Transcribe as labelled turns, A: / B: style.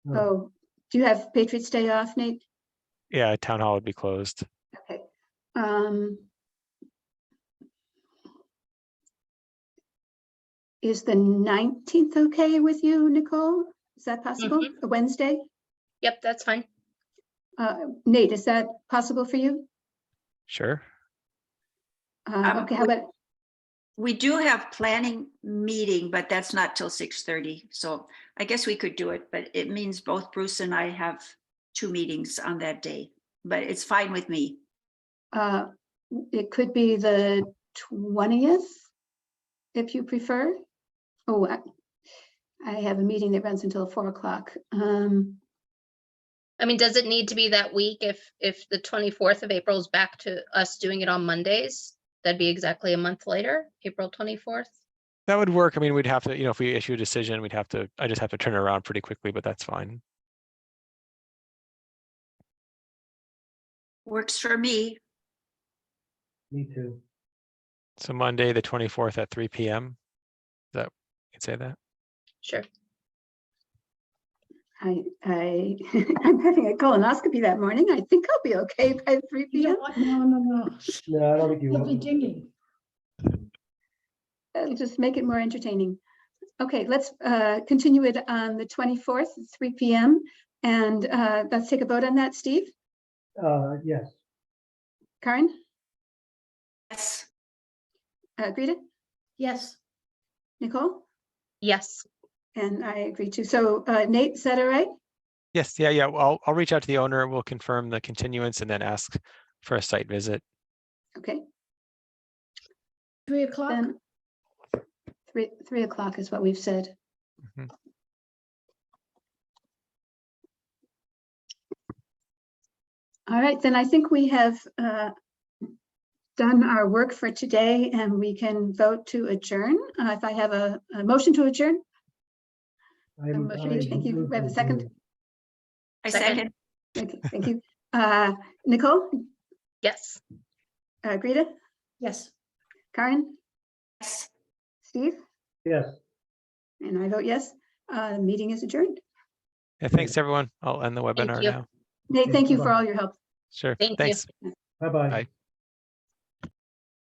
A: Hmm.
B: Oh, do you have Patriots' Day off, Nate?
C: Yeah, town hall would be closed.
B: Okay. Um. Is the nineteenth okay with you, Nicole? Is that possible? A Wednesday?
D: Yep, that's fine.
B: Uh, Nate, is that possible for you?
C: Sure.
B: Uh,
E: Um,
B: okay, how
E: we-
B: about,
E: We do have planning meeting, but that's not till six thirty, so I guess we could do it, but it means both Bruce and I have two meetings on that day, but it's fine with me.
B: uh, it could be the twentieth, if you prefer. Oh, I, I have a meeting that runs until four o'clock. Um,
D: I mean, does it need to be that week if, if the twenty-fourth of April is back to us doing it on Mondays? That'd be exactly a month later, April twenty-fourth.
C: That would work. I mean, we'd have to, you know, if we issue a decision, we'd have to, I just have to turn it around pretty quickly, but that's fine.
E: Works for me.
A: Me too.
C: So Monday, the twenty-fourth at three PM. Is That, you can say that?
D: Sure.
B: I, I, I'm having a colonoscopy that morning. I think I'll be okay by three
F: You
B: PM.
F: don't want- No, no,
B: Oh.
F: no.
A: No, I don't think you
F: You'll be
A: will.
F: dinging.
B: It'll just make it more entertaining. Okay, let's uh, continue it on the 24th, at three PM. And uh, let's take a vote on that. Steve,
A: Uh, yes,
B: Karen,
E: Yes,
B: uh, Greta,
F: Yes,
B: Nicole,
D: Yes,
B: and I agree too. So uh, Nate, is that all right?
C: Yes, yeah, yeah. I'll, I'll reach out to the owner. We'll confirm the continuance and then ask for a site visit.
B: Okay,
F: three o'clock.
B: then three, three o'clock is what we've said.
C: Mhm.
B: All right, then I think we have uh, done our work for today and we can vote to adjourn. Uh, If I have a, a motion to adjourn,
A: I'm.
B: motion
A: I'm
B: is- thank you. Um, We have a second?
A: confused.
E: I
D: Second.
E: second.
B: okay, thank you. Uh, Nicole,
D: yes.
B: uh, Greta,
F: Yes.
B: Karen,
E: Yes.
B: Steve,
A: Yes.
B: and I vote yes. Uh, Meeting is adjourned.
C: Yeah, thanks, everyone. I'll end the webinar
D: you.
C: now.
B: Nate,
A: Okay,
B: thank you for
A: bye-bye.
B: all your help.
C: Sure,
D: Thank you.
C: thanks.
A: Bye-bye.
C: Bye.